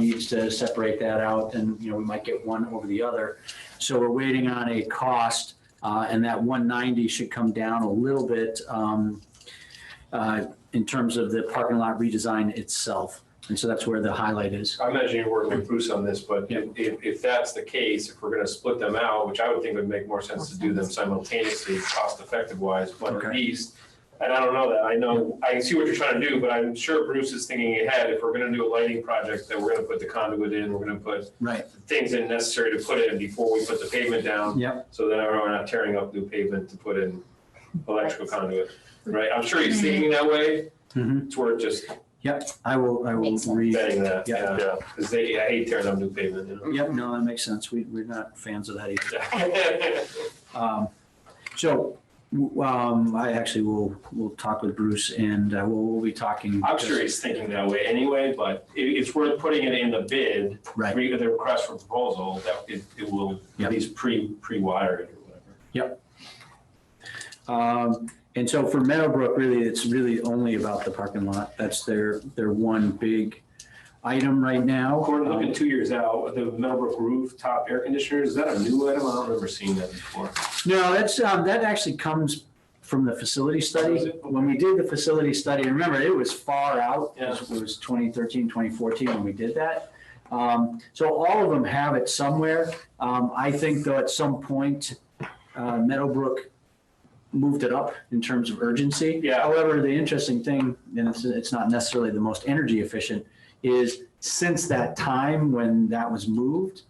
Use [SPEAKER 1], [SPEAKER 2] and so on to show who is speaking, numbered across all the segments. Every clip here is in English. [SPEAKER 1] needs to separate that out and, you know, we might get one over the other. So we're waiting on a cost, uh, and that one ninety should come down a little bit, um, uh, in terms of the parking lot redesign itself. And so that's where the highlight is.
[SPEAKER 2] I imagine you're working with Bruce on this, but
[SPEAKER 1] Yeah.
[SPEAKER 2] if, if if that's the case, if we're gonna split them out, which I would think would make more sense to do them simultaneously, cost effective wise, but
[SPEAKER 1] Okay.
[SPEAKER 2] at least, and I don't know that, I know, I can see what you're trying to do, but I'm sure Bruce is thinking ahead, if we're gonna do a lighting project, that we're gonna put the conduit in, we're gonna put
[SPEAKER 1] Right.
[SPEAKER 2] things in necessary to put in before we put the pavement down.
[SPEAKER 1] Yep.
[SPEAKER 2] So then we're not tearing up new pavement to put in electrical conduit, right? I'm sure he's thinking that way,
[SPEAKER 1] Mhm.
[SPEAKER 2] it's worth just
[SPEAKER 1] I will, I will
[SPEAKER 3] Makes sense.
[SPEAKER 1] read.
[SPEAKER 2] betting that,
[SPEAKER 1] Yeah.
[SPEAKER 2] yeah, because they, I hate tearing up new pavement, you know?
[SPEAKER 1] Yep, no, that makes sense. We, we're not fans of that either.
[SPEAKER 2] Yeah.
[SPEAKER 1] Um, So, w- um, I actually will, will talk with Bruce and uh, we'll, we'll be talking.
[SPEAKER 2] I'm sure he's thinking that way anyway, but it, it's worth putting it in the bid,
[SPEAKER 1] Right.
[SPEAKER 2] re- the request for proposal, that it, it will
[SPEAKER 1] Yep.
[SPEAKER 2] at least pre, pre-wire it or whatever.
[SPEAKER 1] Um, and so for Meadowbrook, really, it's really only about the parking lot. That's their, their one big item right now.
[SPEAKER 2] According, looking two years out, the Meadowbrook rooftop air conditioner, is that a new item? I don't remember seeing that before.
[SPEAKER 1] No, that's, um, that actually comes from the facility
[SPEAKER 2] Is
[SPEAKER 1] study.
[SPEAKER 2] it?
[SPEAKER 1] When we did the facility study, remember, it was far out.
[SPEAKER 2] Yeah.
[SPEAKER 1] It was 2013, 2014 when we did that. Um, so all of them have it somewhere. Um, I think though at some point, uh, Meadowbrook moved it up in terms of urgency.
[SPEAKER 2] Yeah.
[SPEAKER 1] However, the interesting thing, and it's, it's not necessarily the most energy efficient, is since that time when that was moved,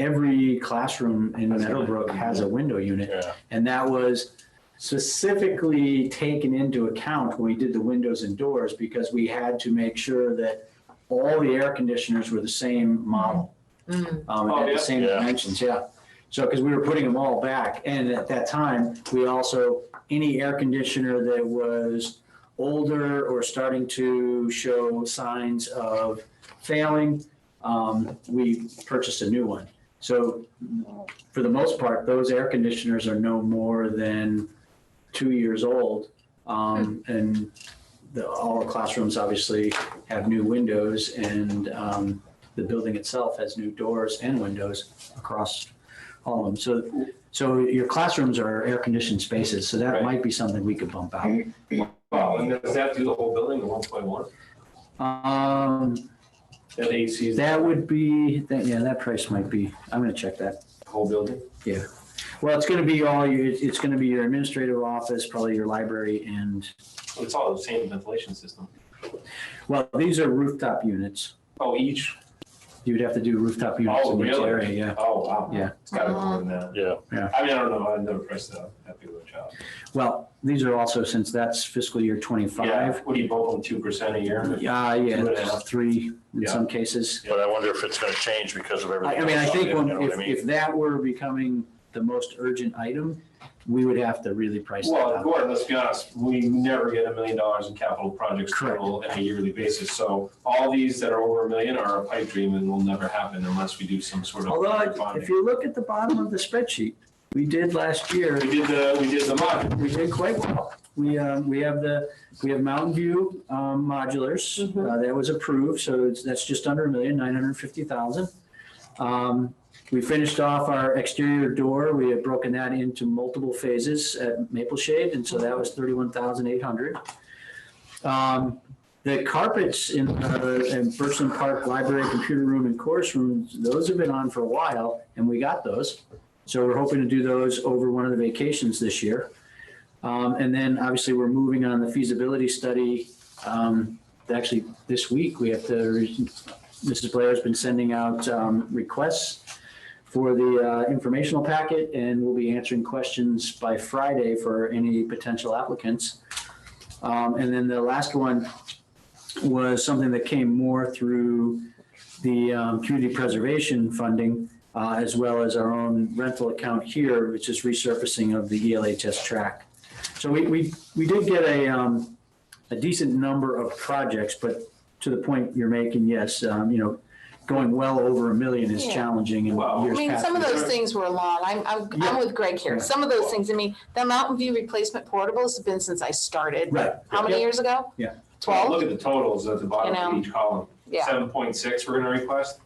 [SPEAKER 1] every classroom in
[SPEAKER 2] Has a-
[SPEAKER 1] Meadowbrook has a window unit.
[SPEAKER 2] Yeah.
[SPEAKER 1] And that was specifically taken into account when we did the windows and doors because we had to make sure that all the air conditioners were the same model.
[SPEAKER 3] Mm.
[SPEAKER 1] Um,
[SPEAKER 2] Oh,
[SPEAKER 1] had
[SPEAKER 2] yeah.
[SPEAKER 1] the same
[SPEAKER 4] Yeah.
[SPEAKER 1] dimensions, yeah. So, because we were putting them all back, and at that time, we also, any air conditioner that was older or starting to show signs of failing, um, we purchased a new one. So for the most part, those air conditioners are no more than two years old. Um, and the, all the classrooms obviously have new windows and, um, the building itself has new doors and windows across all of them. So, so your classrooms are air conditioned spaces, so that
[SPEAKER 2] Right.
[SPEAKER 1] might be something we could bump out.
[SPEAKER 2] Wow, and does that do the whole building, the one point one?
[SPEAKER 1] Um,
[SPEAKER 2] That AC is
[SPEAKER 1] that would be, that, yeah, that price might be, I'm gonna check that.
[SPEAKER 2] the whole building?
[SPEAKER 1] Well, it's gonna be all your, it's- it's gonna be your administrative office, probably your library and,
[SPEAKER 2] It's all the same ventilation system.
[SPEAKER 1] well, these are rooftop units.
[SPEAKER 2] Oh, each,
[SPEAKER 1] You'd have to do rooftop units
[SPEAKER 2] oh,
[SPEAKER 1] in each area,
[SPEAKER 2] really?
[SPEAKER 1] yeah.
[SPEAKER 2] Oh, wow.
[SPEAKER 1] Yeah.
[SPEAKER 2] It's gotta be more than that.
[SPEAKER 4] Yeah.
[SPEAKER 2] I mean, I don't know, I've never pressed it up, happy with a job.
[SPEAKER 1] Well, these are also, since that's fiscal year
[SPEAKER 2] Yeah,
[SPEAKER 1] twenty-five,
[SPEAKER 2] what do you bump them two percent a year?
[SPEAKER 1] yeah,
[SPEAKER 2] Two and a
[SPEAKER 1] yeah,
[SPEAKER 2] half.
[SPEAKER 1] three in
[SPEAKER 2] Yeah.
[SPEAKER 1] some cases.
[SPEAKER 4] But I wonder if it's gonna change because of
[SPEAKER 1] I,
[SPEAKER 4] everything.
[SPEAKER 1] I mean, I
[SPEAKER 4] else out
[SPEAKER 1] think
[SPEAKER 4] there,
[SPEAKER 1] when,
[SPEAKER 4] you know what I
[SPEAKER 1] if,
[SPEAKER 4] mean?
[SPEAKER 1] if that were becoming the most urgent item, we would have to really price that
[SPEAKER 2] Well,
[SPEAKER 1] out.
[SPEAKER 2] Gordon, let's be honest, we never get a million dollars in capital projects
[SPEAKER 1] Correct.
[SPEAKER 2] total on a yearly basis. So all these that are over a million are a pipe dream and will never happen unless we do some sort of. public
[SPEAKER 1] Although, if
[SPEAKER 2] bonding.
[SPEAKER 1] you look at the bottom of the spreadsheet, we did last year,
[SPEAKER 2] We did the, we did the mod,
[SPEAKER 1] we did quite well. We, uh, we have the, we have Mountain View um, modulars, uh, that was approved, so it's, that's just under a million, nine hundred and fifty thousand. Um, We finished off our exterior door, we had broken that into multiple phases at Maple Shade, and so that was thirty-one thousand eight hundred. Um, The carpets in, uh, in Birchland Park Library Computer Room and Course Room, those have been on for a while, and we got those. So we're hoping to do those over one of the vacations this year. Um, and then obviously we're moving on the feasibility study. Um, actually, this week we have to, re- Mrs. Blair's been sending out, um, requests for the, uh, informational packet and we'll be answering questions by Friday for any potential applicants. Um, and then the last one was something that came more through the, um, community preservation funding, uh, as well as our own rental account here, which is resurfacing of the E ELHS track. So we, we, we did get a, um, a decent number of projects, but to the point you're making, yes, um, you know, going well over a million is
[SPEAKER 3] Yeah.
[SPEAKER 1] challenging in
[SPEAKER 2] Well, I
[SPEAKER 3] I
[SPEAKER 1] years
[SPEAKER 3] mean,
[SPEAKER 1] past.
[SPEAKER 3] some of those
[SPEAKER 2] Sure.
[SPEAKER 3] things were long. I'm, I'm,
[SPEAKER 1] Yeah.
[SPEAKER 3] I'm with Greg here.
[SPEAKER 1] Yeah.
[SPEAKER 3] Some of those things, I mean, the Mountain View replacement portables have been since I started.
[SPEAKER 1] Right.
[SPEAKER 3] How many
[SPEAKER 1] Yep.
[SPEAKER 3] years ago?
[SPEAKER 1] Yeah.
[SPEAKER 2] Well,
[SPEAKER 3] Twelve?
[SPEAKER 2] look at the totals at the bottom
[SPEAKER 3] You know.
[SPEAKER 2] of each column.
[SPEAKER 3] Yeah.
[SPEAKER 2] seven point six we're gonna request.